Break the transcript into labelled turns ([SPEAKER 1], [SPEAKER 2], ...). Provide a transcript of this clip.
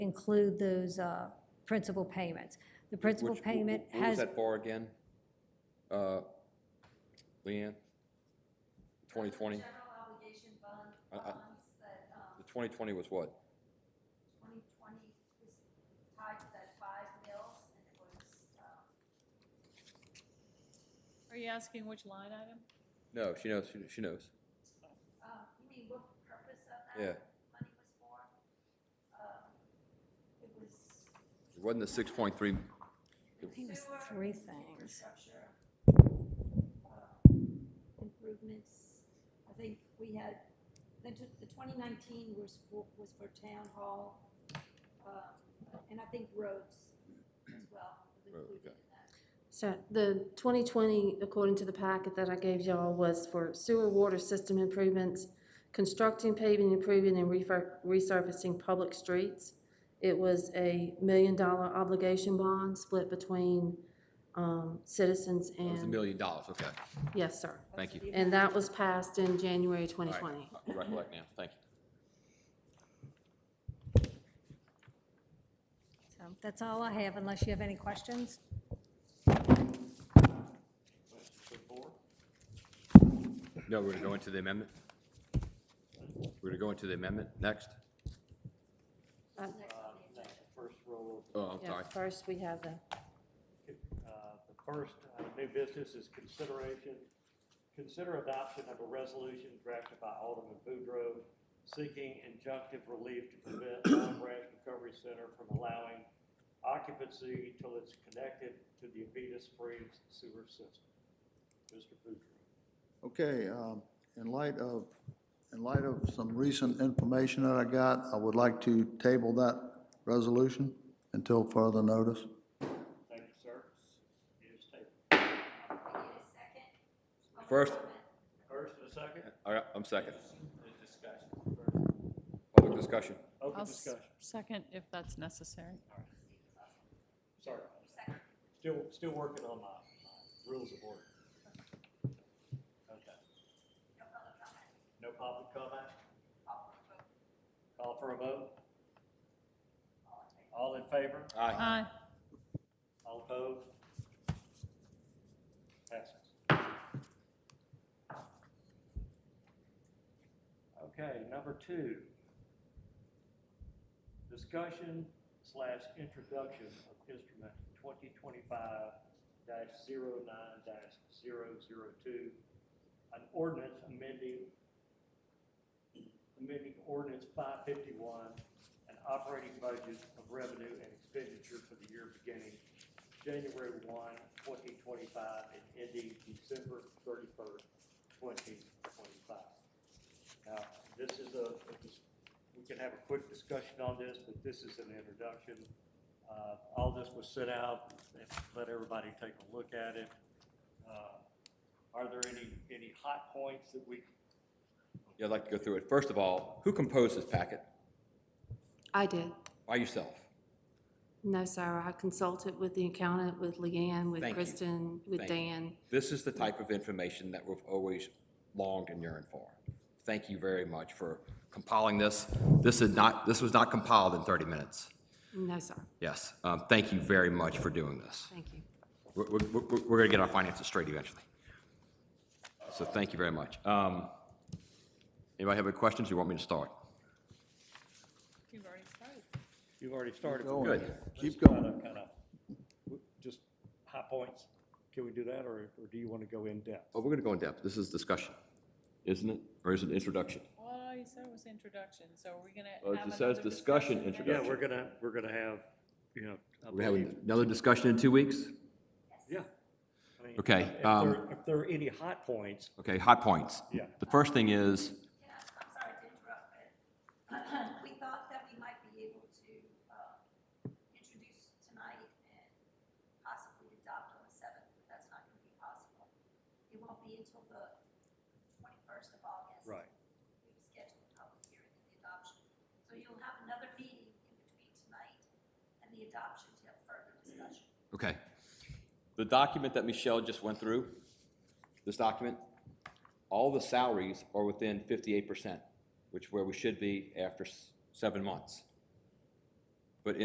[SPEAKER 1] include those uh, principal payments. The principal
[SPEAKER 2] Which- wh- wh-
[SPEAKER 1] payment
[SPEAKER 2] What was
[SPEAKER 1] has,
[SPEAKER 2] that for again? Uh, Leanne? 2020?
[SPEAKER 3] General obligation bond,
[SPEAKER 2] I- I-
[SPEAKER 3] bonds that, um,
[SPEAKER 2] The 2020 was what?
[SPEAKER 3] twenty twenty was tied to that five mills, and it was, um,
[SPEAKER 4] Are you asking which line item?
[SPEAKER 2] No, she knows, she- she knows.
[SPEAKER 3] uh, you mean what the purpose of
[SPEAKER 2] Yeah.
[SPEAKER 3] that money was for? Um, It was
[SPEAKER 2] It wasn't the 6.3,
[SPEAKER 1] I think it was three things.
[SPEAKER 3] infrastructure, uh, improvements. I think we had, the, t- the twenty nineteen was for, was for town hall, um, and I think roads as well, was
[SPEAKER 2] Road, okay.
[SPEAKER 3] included in that.
[SPEAKER 5] So the 2020, according to the packet that I gave y'all, was for sewer water system improvements, constructing, paving, improving, and refur- resurfacing public streets. It was a million-dollar obligation bond split between um, citizens
[SPEAKER 2] it was a
[SPEAKER 5] and,
[SPEAKER 2] million dollars, okay.
[SPEAKER 5] yes, sir.
[SPEAKER 2] Thank you.
[SPEAKER 5] And that was passed in January
[SPEAKER 2] All right,
[SPEAKER 5] 2020.
[SPEAKER 2] I Recollect now, thank you.
[SPEAKER 1] So that's all I have, unless you have any questions.
[SPEAKER 2] No, we're going to go into the amendment? We're going to go into the amendment next?
[SPEAKER 6] um, First roll
[SPEAKER 2] Oh, I'm
[SPEAKER 5] Uh, Yeah,
[SPEAKER 2] sorry.
[SPEAKER 5] First, we have the,
[SPEAKER 6] of, uh, the first uh, new business is consideration, consider adoption of a resolution drafted by Alderman Boudreaux seeking injunctive relief to prevent Long Branch Recovery Center from allowing occupancy till it's connected to the Avita Springs sewer system. Mr. Boudreaux.
[SPEAKER 7] Okay, um, in light of, in light of some recent information that I got, I would like to table that resolution until further notice.
[SPEAKER 6] Thank you, sir. It is tabled.
[SPEAKER 2] First,
[SPEAKER 6] First and a second,
[SPEAKER 2] all right, I'm second.
[SPEAKER 6] is discussion.
[SPEAKER 2] Public discussion.
[SPEAKER 6] Open
[SPEAKER 4] I'll s-
[SPEAKER 6] discussion.
[SPEAKER 4] second if that's necessary.
[SPEAKER 6] Sorry. Still, still working on my, my rules of order. Okay. No public comment? Call for a vote? All in favor?
[SPEAKER 2] Aye.
[SPEAKER 4] Aye.
[SPEAKER 6] All opposed? Passes. Okay, number two. Discussion slash introduction of instrument twenty twenty-five dash zero nine dash zero zero two. An ordinance amending, amending ordinance five fifty-one and operating budget of revenue and expenditure for the year beginning January 1, 2025, and ending December 31, 2025. Now, this is a, we can have a quick discussion on this, but this is an introduction. Uh, All this was sent out, let everybody take a look at it. Uh, Are there any, any hot points that we,
[SPEAKER 2] Yeah, I'd like to go through it. First of all, who composed this packet?
[SPEAKER 5] I did.
[SPEAKER 2] By yourself?
[SPEAKER 5] No, sir, I consulted with the accountant, with Leanne, with
[SPEAKER 2] Thank you.
[SPEAKER 5] Kristen, with
[SPEAKER 2] Thank you.
[SPEAKER 5] Dan.
[SPEAKER 2] This is the type of information that we've always longed and yearned for. Thank you very much for compiling this. This is not, this was not compiled in 30 minutes.
[SPEAKER 5] No, sir,
[SPEAKER 2] Yes, um, thank you very much for doing this.
[SPEAKER 5] thank you.
[SPEAKER 2] We're, we're, we're going to get our finances straight eventually. So thank you very much. Um, Anybody have any questions? You want me to start?
[SPEAKER 4] You've already started.
[SPEAKER 6] you've already started.
[SPEAKER 2] Good.
[SPEAKER 7] Keep
[SPEAKER 6] Kind of, just high points. Can we do that, or or do you want to go in depth?
[SPEAKER 2] Oh, we're going to go in depth. This is discussion, isn't it? Or is it introduction?
[SPEAKER 4] Well, you said it was introduction, so are we gonna
[SPEAKER 2] Well, it
[SPEAKER 4] have
[SPEAKER 2] just says
[SPEAKER 4] another
[SPEAKER 2] discussion
[SPEAKER 4] now?
[SPEAKER 2] introduction.
[SPEAKER 6] Yeah, we're gonna, we're gonna have, you know. I
[SPEAKER 2] We're going to
[SPEAKER 6] believe-
[SPEAKER 2] have another discussion in two weeks?
[SPEAKER 6] Yeah. I mean,
[SPEAKER 2] Okay,
[SPEAKER 6] If
[SPEAKER 2] um,
[SPEAKER 6] there, if there are any hot points,
[SPEAKER 2] Okay, hot points.
[SPEAKER 6] Yeah.
[SPEAKER 2] The first thing is,
[SPEAKER 3] Yeah, I'm sorry to interrupt, but we thought that we might be able to uh, introduce tonight and possibly adopt on the seventh, but that's not going to be possible. It won't be until the twenty-first of August.
[SPEAKER 6] right,
[SPEAKER 3] We've scheduled a public hearing and the adoption. So you'll have another meeting in between tonight and the adoption to have further discussion.
[SPEAKER 2] okay, the document that Michelle just went through, this document, all the salaries are within fifty-eight percent, which where we should be after s- seven months.